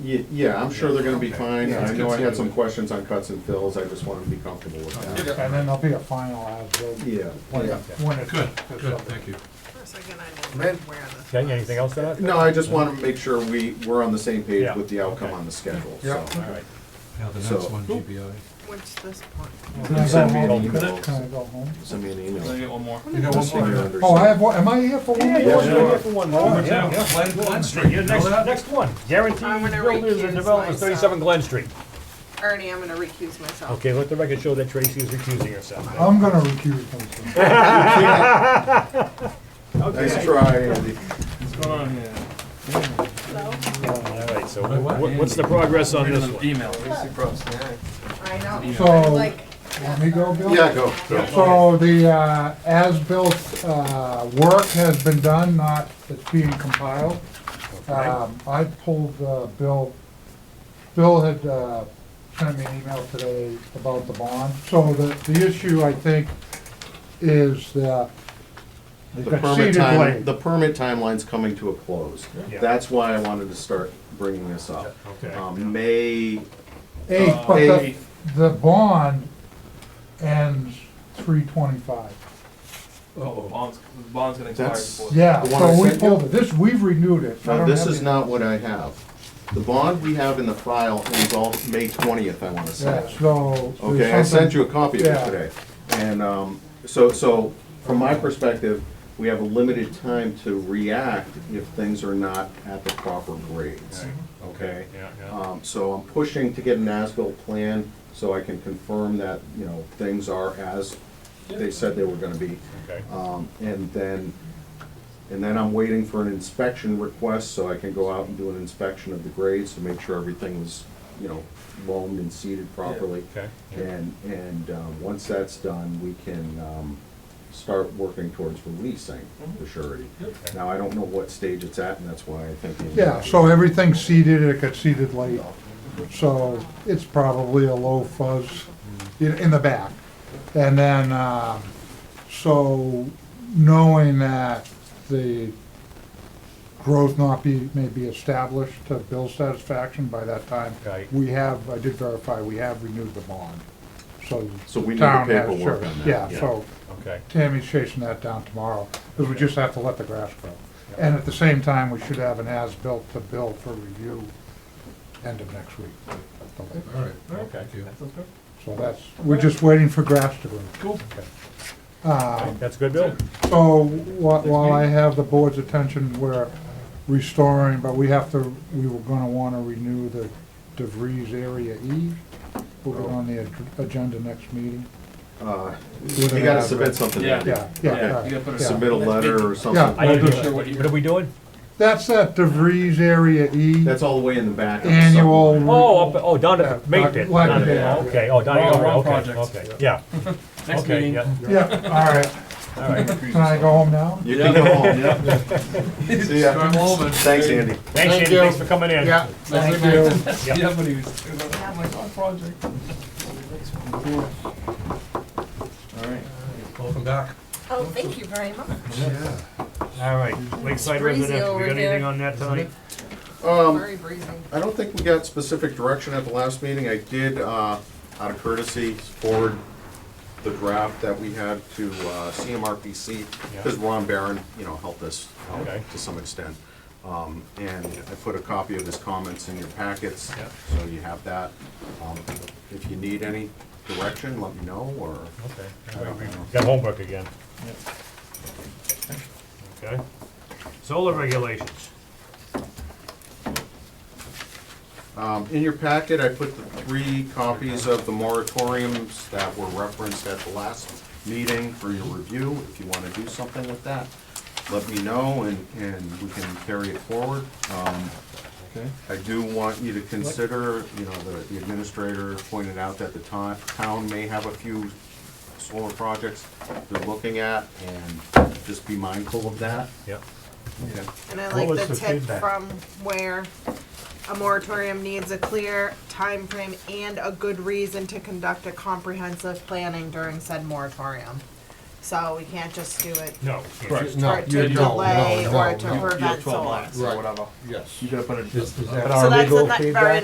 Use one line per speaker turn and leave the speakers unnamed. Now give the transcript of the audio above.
Ye- Yeah, I'm sure they're gonna be fine,
Yeah, it's
I know I had some
considered.
questions on cuts and fills, I just wanted to be comfortable with that.
And then there'll be a final as-built.
Yeah,
When
yeah.
when it's.
Good,
it's
good,
up.
thank you.
For a second, I didn't where the.
Got anything else to add?
No, I just wanna make sure we, we're on the same page
Yeah.
with the outcome
Okay.
on the schedule, so.
Yeah.
All right.
Now, the
So-
next one, GBI.
What's this point?
Can I go
Send me an
home?
email.
Can I go home?
Send me an email.
get one more? You got
Just so
one
you
more?
understand.
Oh, I have one, am I here for one?
Yeah,
more?
you're
sure.
here for one more.
Yeah,
yeah.
Glen- Glen Street.
Your next, next one,
I'm
guaranteed
gonna
builders
recuse
and developments,
myself.
thirty-seven Glen Street.
Ernie, I'm gonna recuse myself.
Okay, let the record show that Tracy is recusing herself.
Oh.
I'm gonna recuse myself.
Nice try, Andy.
So,
All right, so
What- what?
what- what's the progress on this one?
Email.
I know.
So,
Like,
let me go, Bill?
Yeah, go.
So the uh, as-built uh, work has been done, not, it's being compiled. Um, I pulled uh, Bill, Bill had uh, sent me an email today about the bond. So the, the issue, I think, is that they've
The
got
permit
seeded
time,
land.
the permit timeline's coming to a close.
Yeah.
That's why I wanted to start bringing this up.
Okay.
Um, May,
Eight, but the,
eight.
the bond ends three twenty-five.
Oh, bond's, the bond's gonna expire
That's-
before.
Yeah,
The one I
so we
sent you?
pulled it, this, we've renewed it. I
now
don't
this
have
is
it.
not what I have. The bond we have in the file ends all May twentieth, I wanna
Yeah,
say.
so. there's
Okay, I sent
something-
you a copy of it
Yeah.
today. And, um, so, so, from my perspective, we have a limited time to react if things are not at the proper grades, okay?
Yeah, yeah.
Um, so I'm pushing to get an as-built plan, so I can confirm that, you know, things are as they said they were gonna be.
Okay.
Um, and then, and then I'm waiting for an inspection request, so I can go out and do an inspection of the grades to make sure everything was, you know, loamed and seeded properly.
Okay. yeah.
And, and, um, once that's done, we can, um, start working towards releasing
Mm-hmm.
the surety. Now, I don't know what stage it's at, and that's why I think. uh, we-
Yeah, so everything's seeded, it got seeded late, so it's probably a low fuzz in, in the back. And then, uh, so knowing that the growth not be, may be established to Bill's satisfaction by that time,
Okay.
we have, I did verify, we have renewed the bond, so.
So we need the
town has
paperwork
sure-
on that, yeah.
Yeah, so
Okay.
Tammy's chasing that down tomorrow, because we just have to let the grass grow. And at the same time, we should have an as-built to bill for review end of next week. at the latest.
All right,
Okay.
thank you.
So that's, we're just waiting for grass to grow.
Cool.
Um,
That's good, Bill?
So wh- while I have the board's attention, we're restoring, but we have to, we were gonna wanna renew the DeVries Area E. We'll
Oh.
get on the ag- agenda next meeting.
Uh,
With
You
an
gotta
address.
submit something.
Yeah.
Yeah,
Yeah,
yeah,
you gotta put
yeah.
a
yeah.
Submit a letter or something.
I
Well,
didn't
I'm
hear
sure what
that.
you-
What are we doing?
That's at DeVries Area E.
That's all the way in the back. of the
annual.
supplement.
Oh, up, oh, down
Yeah,
at Mate Pit.
Black-
down at-
Black-
oh, Okay, oh, down at,
Wrong- wrong
okay,
project.
okay, yeah.
Next
Okay,
meeting.
yeah,
Yeah, all right.
All right.
Can I go home now?
You can go home. See ya.
Drive home and-
Thanks, Andy.
Thanks, Andy, thanks for coming in.
Thank you.
Yeah.
Yeah, but he was, he was like, oh my god, project.
Welcome back.
Oh, thank you very much.
All right, Lakeside
Breezy
residents, we
over
got
here.
anything on that tonight?
Um,
Very breezy.
I don't think we got specific direction at the last meeting. I did, uh, out of courtesy, forward the draft that we had to, uh, CMRPC,
Yeah.
because Ron Barron, you know, helped us out
Okay.
to some extent. Um, and I put a copy of his comments in your packets,
Yeah.
so you have that. Um, if you need any direction, let me know, or,
Okay, all right, we got homework again. Okay, solar regulations.
um, in your packet, I put the three copies of the moratoriums that were referenced at the last meeting for your review. If you wanna do something with that, let me know, and, and we can carry it forward. Um, I do want you to consider, you know, the the administrator pointed out that the town, town may have a few solar projects they're looking at, and just be mindful of that.
Yep.
And I
What
like
was
the
the
tip
feedback?
from where a moratorium needs a clear time frame and a good reason to conduct a comprehensive planning during said moratorium. So we can't just do it
No.
Correct.
for it
you
to
don't, no,
delay or
no,
to
no.
You have
prevent
twelve
solar.
months or
Right.
whatever.
Yes.
You gotta put it.
Is- is that-
So that's not very